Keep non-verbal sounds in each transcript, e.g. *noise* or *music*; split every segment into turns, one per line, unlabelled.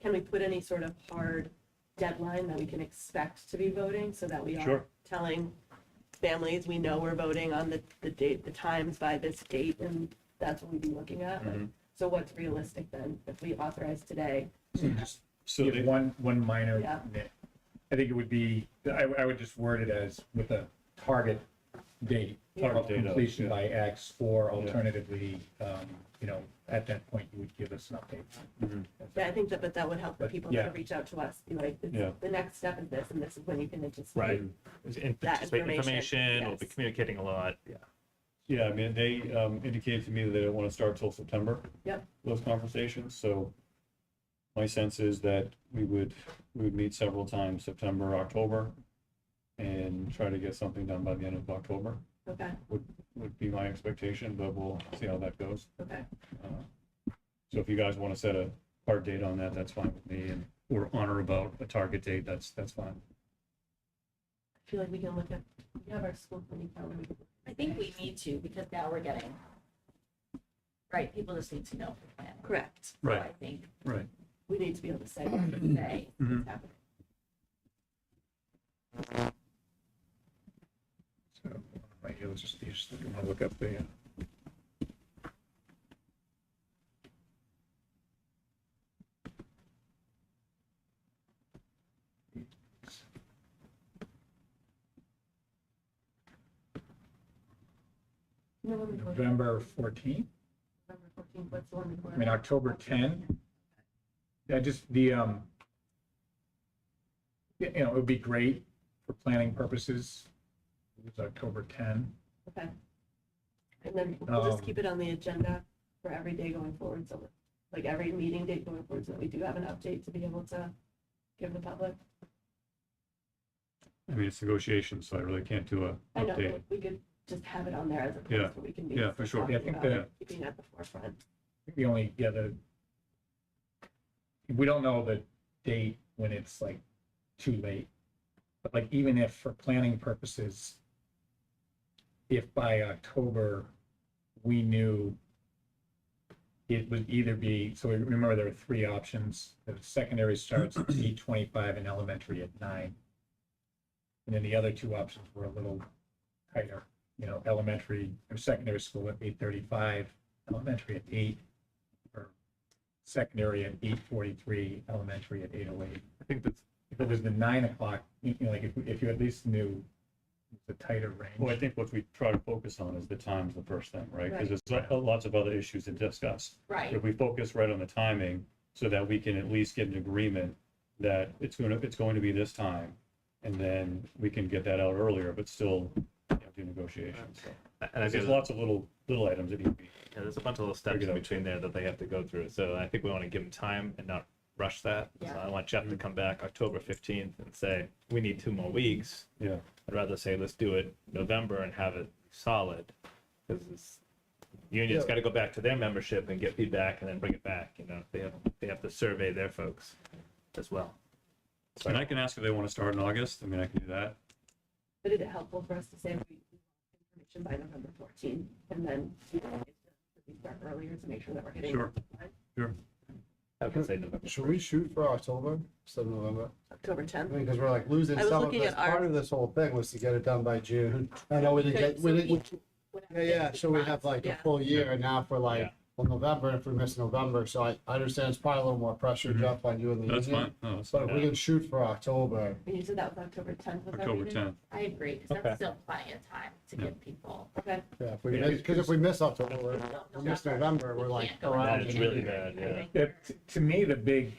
can we put any sort of hard deadline that we can expect to be voting so that we are
Sure.
telling families, we know we're voting on the, the date, the times by this date, and that's what we'd be looking at? Like, So what's realistic then, if we authorize today?
Just
So
give
they,
one, one minor
Yeah.
nit. I think it would be, I, I would just word it as with a target date
Yeah.
of
Target date of,
completion
yeah.
by X, or
Yeah.
alternatively, um, you know, at that point, you would give us an update.
Mhm.
Yeah, I think that, but that would help the
But,
people that
yeah.
reach out to us, be like, this-
Yeah.
the next step is this, and this is when you can anticipate.
Right. And
That
participate in
information,
information, we'll be
yes.
communicating a lot. Yeah.
yeah, I mean, they um, indicated to me that they don't want to start till September.
Yep.
Those conversations, so my sense is that we would, we would meet several times, September, October, and try to get something done by the end of October,
Okay,
would be my expectation, but we'll see how that goes.
okay,
Uh, So if you guys want to set a hard date on that, that's fine with me, and or honor about a target date, that's, that's fine.
I feel like we can look at, we have our school committee calendar, we can
I think we need to, because now we're getting, right, people just need to know. the plan.
Correct.
So
Right.
I think,
Right. Mm-hmm.
We need to be able to say what we
say,
think's happening.
So, right here, let's just, you just want to look up the, uh,
You know, when we go to
November fourteenth,
November 14th, what's the one before
I mean,
that?
October ten. Yeah, just the, um, yeah, you know, it would be great for planning purposes. It was October ten.
Okay. And then we'll just
Um,
keep it on the agenda for every day going forward, so like every meeting date going forward, so that we do have an update to be able to give the public.
I mean, it's negotiations, so I really can't do a
I know,
update.
but we could just have it on there as a
Yeah,
place where we can be.
yeah, for sure.
talking
Yeah, I think
about it,
that-
Keeping it at the forefront.
The only, yeah, the, we don't know the date when it's like too late. But like even if for planning purposes, if by October, we knew it would either be, so we remember there are three options. The secondary starts
*clears throat*
at eight twenty-five and elementary at nine. And then the other two options were a little tighter, you know, elementary or secondary school at eight thirty-five, elementary at eight, or secondary at eight forty-three, elementary at eight oh eight.
I think that's,
If it was the nine o'clock, you know, like if, if you at least knew the tighter
Well, I
range.
think what we try to focus on is the time's the first thing, right?
Right.
Because there's lo- uh, lots of other issues to discuss.
right,
If we focus right on the timing, so that we can at least get an agreement that it's going to, it's going to be this time, and then we can get that out earlier, but still you know, do negotiations. So
and I think
There's lots of little, little items that need to be,
yeah, there's a bunch of little steps
Figure
in
it out.
between there that they have to go through. So I think we want to give them time and not rush that. So
Yeah.
I want Jeff to come back October 15th and say, we need two more weeks.
yeah.
I'd rather say let's do it November and have it solid because it's union's got to go back to their membership and get feedback and then bring it back. You know, they have they have to survey their folks as well.
And I can ask if they want to start in August. I mean, I can do that.
But is it helpful for us to say we we want information by November 14th? And then we can start earlier to make sure that we're hitting.
Sure.
I can say November.
Should we shoot for October instead of November?
October
I
10th.
mean, because we're like losing
I was
some of
looking
this.
at our-
Part of this whole thing was to get it done by June. I know we didn't
Okay,
get, we
so
didn't,
each would have
yeah, yeah,
different
so we have
slots.
like a
Yeah.
full year and now for like,
Yeah.
well, November, if we miss November, so I, I understand it's probably a little more pressure, Jeff, on you and the
That's
union.
fine. No, it's
But if we
Mm-hmm. Yeah.
can shoot for October,
And you said that was October 10th. was our
October
meeting?
10th.
I agree, because
Okay.
that's still plenty of time to get people.
Okay,
yeah, if we
Yeah.
miss, because if we miss October, we're- if we miss November, we're like.
We can't go
around
out
That is
again.
really bad,
I
yeah.
think
Yeah,
we're-
t- to me, the big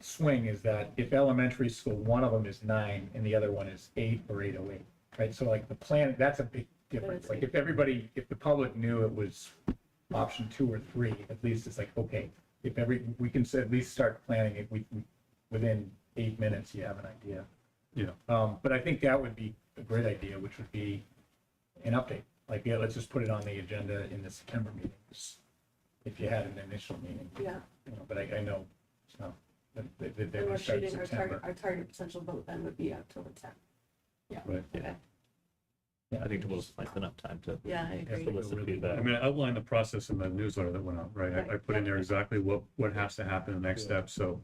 swing is that if elementary school, one of them is nine and the other one is eight or eight oh eight, right? So like the plan, that's a big difference. Like if everybody, if the public knew it was option two or three, at least it's like, okay, if every, we can s- at least start planning it, we, we- within eight minutes, you have an idea.
Yeah.
Um, but I think that would be a great idea, which would be an update. Like, yeah, let's just put it on the agenda in the September meetings, if you had an initial meeting
yeah.
you know, but I, I know, so, that they, they, they
And we're
would start in
shooting, our target,
September.
our target potential vote then would be October tenth.
Right.
Okay,
I think we'll just like enough time to
yeah, I
Yeah,
agree.
but-
solicit feedback.
I mean, I outlined the process in the newsletter that went out, right? I, I put in there exactly what, what has to happen, the next step, so